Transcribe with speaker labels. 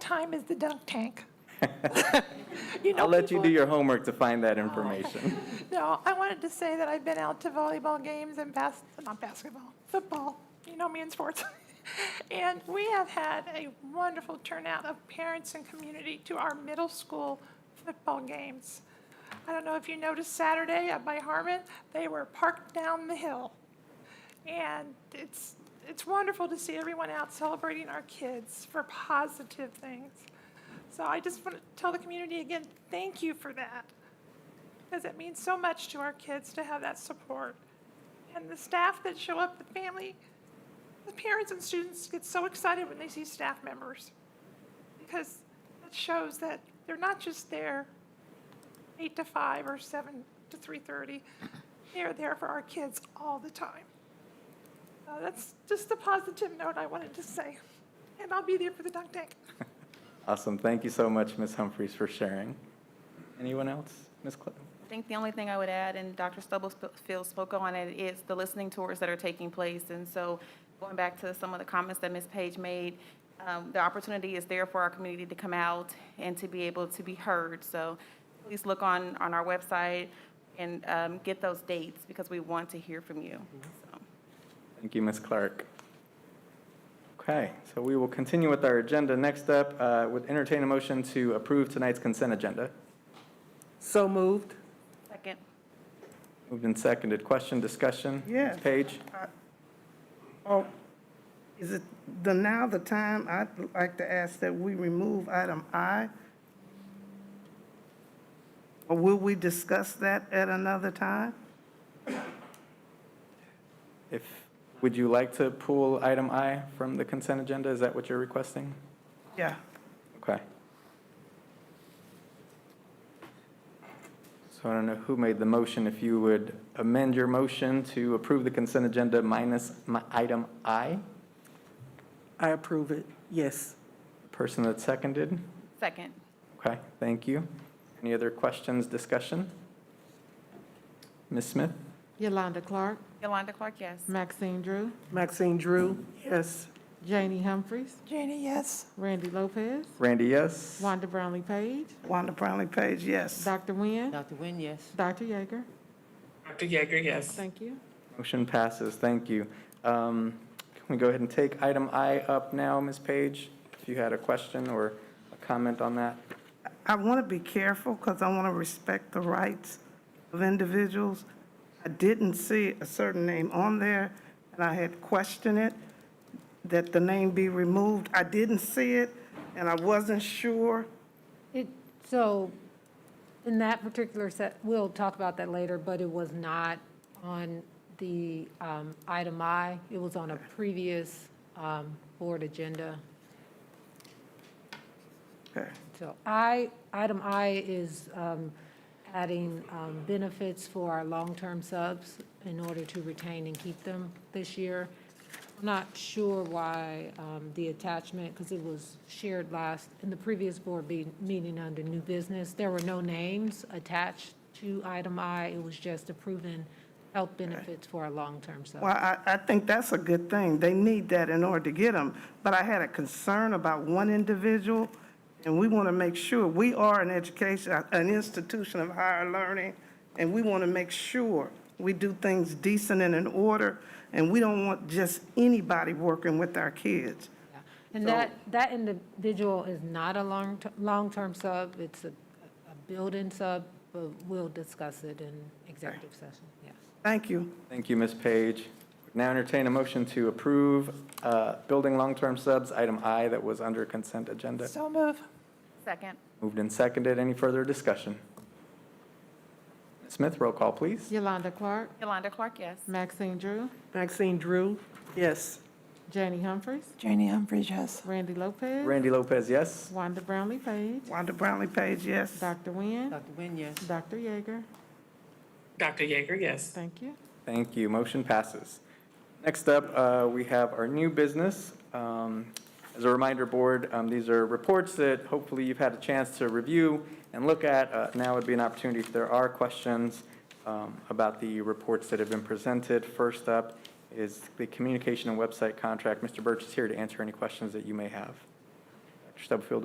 Speaker 1: time is the dunk tank? You know,
Speaker 2: I'll let you
Speaker 1: people-
Speaker 2: do your homework to find that information.
Speaker 1: No, I wanted to say that I've been out to volleyball games and bas, not basketball, football, you know me in sports. And we have had a wonderful turnout of parents and community to our middle school football games. I don't know if you noticed Saturday up by Harmon, they were parked down the hill. And it's, it's wonderful to see everyone out celebrating our kids for positive things. So I just want to tell the community again, thank you for that because it means so much to our kids to have that support. And the staff that show up, the family, the parents and students get so excited when they see staff members because it shows that they're not just there eight to five or seven to three thirty. They're there for our kids all the time. Uh, that's just a positive note I wanted to say, and I'll be there for the dunk tank.
Speaker 2: Awesome. Thank you so much, Ms. Humphries, for sharing. Anyone else? Ms. Clem?
Speaker 3: I think the only thing I would add, and Dr. Stubblefield spoke on it, is the listening tours that are taking place. And so going back to some of the comments that Ms. Page made, um, the opportunity is there for our community to come out and to be able to be heard. So please look on, on our website and um, get those dates because we want to hear from you. So,
Speaker 2: Thank you, Ms. Clark. Okay, so we will continue with our agenda. Next up, uh, would entertain a motion to approve tonight's consent agenda.
Speaker 4: So moved.
Speaker 3: Second.
Speaker 2: Moved and seconded. Question, discussion?
Speaker 4: Yes.
Speaker 2: Ms. Page?
Speaker 4: Oh, is it the, now the time, I'd like to ask that we remove item I? Or will we discuss that at another time?
Speaker 2: If, would you like to pull item I from the consent agenda? Is that what you're requesting?
Speaker 4: Yeah.
Speaker 2: Okay. So I don't know who made the motion. If you would amend your motion to approve the consent agenda minus mi- item I,
Speaker 4: I approve it, yes.
Speaker 2: person that seconded.
Speaker 3: Second.
Speaker 2: Okay, thank you. Any other questions, discussion? Ms. Smith?
Speaker 5: Yolanda Clark,
Speaker 3: Yolanda Clark, yes.
Speaker 5: Maxine Drew,
Speaker 4: Maxine Drew? Yes.
Speaker 5: Janie Humphries,
Speaker 1: Janie, yes?
Speaker 5: Randy Lopez,
Speaker 2: Randy, yes?
Speaker 5: Wanda Brownlee Page,
Speaker 4: Wanda Brownlee Page, yes.
Speaker 5: Dr. Nguyen,
Speaker 6: Dr. Nguyen, yes.
Speaker 5: Dr. Yeager.
Speaker 7: Dr. Yeager, yes.
Speaker 5: Thank you.
Speaker 2: Motion passes, thank you. Um, Can we go ahead and take item I up now, Ms. Page? If you had a question or a comment on that?
Speaker 4: I want to be careful because I want to respect the rights of individuals. I didn't see a certain name on there, and I had questioned it, that the name be removed. I didn't see it, and I wasn't sure.
Speaker 8: It, so, in that particular set, we'll talk about that later, but it was not on the um, item I. It was on a previous um, board agenda.
Speaker 4: Okay.
Speaker 8: So I, item I is um, adding um, benefits for our long-term subs in order to retain and keep them this year. I'm not sure why um, the attachment, because it was shared last, in the previous board be- meeting under new business. There were no names attached to item I. It was just approving health benefits for our long-term subs.
Speaker 4: Well, I, I think that's a good thing. They need that in order to get them. But I had a concern about one individual, and we want to make sure, we are an education, an institution of higher learning, and we want to make sure we do things decent and in order, and we don't want just anybody working with our kids.
Speaker 8: Yeah. And that, that individual is not a long, long-term sub, it's a, a building sub, but we'll discuss it in executive session, yes.
Speaker 4: Thank you.
Speaker 2: Thank you, Ms. Page. Now entertain a motion to approve uh, building long-term subs, item I that was under consent agenda.
Speaker 1: So move.
Speaker 3: Second.
Speaker 2: Moved and seconded. Any further discussion? Ms. Smith, roll call, please.
Speaker 5: Yolanda Clark,
Speaker 3: Yolanda Clark, yes.
Speaker 5: Maxine Drew,
Speaker 4: Maxine Drew? Yes.
Speaker 5: Janie Humphries,
Speaker 1: Janie Humphries, yes.
Speaker 5: Randy Lopez,
Speaker 2: Randy Lopez, yes?
Speaker 5: Wanda Brownlee Page,
Speaker 4: Wanda Brownlee Page, yes.
Speaker 5: Dr. Nguyen,
Speaker 6: Dr. Nguyen, yes.
Speaker 5: Dr. Yeager.
Speaker 7: Dr. Yeager, yes.
Speaker 5: Thank you.
Speaker 2: Thank you. Motion passes. Next up, uh, we have our new business. Um, As a reminder, Board, um, these are reports that hopefully you've had a chance to review and look at. Uh, Now would be an opportunity if there are questions um, about the reports that have been presented. First up is the communication and website contract. Mr. Birch is here to answer any questions that you may have. Dr. Stubblefield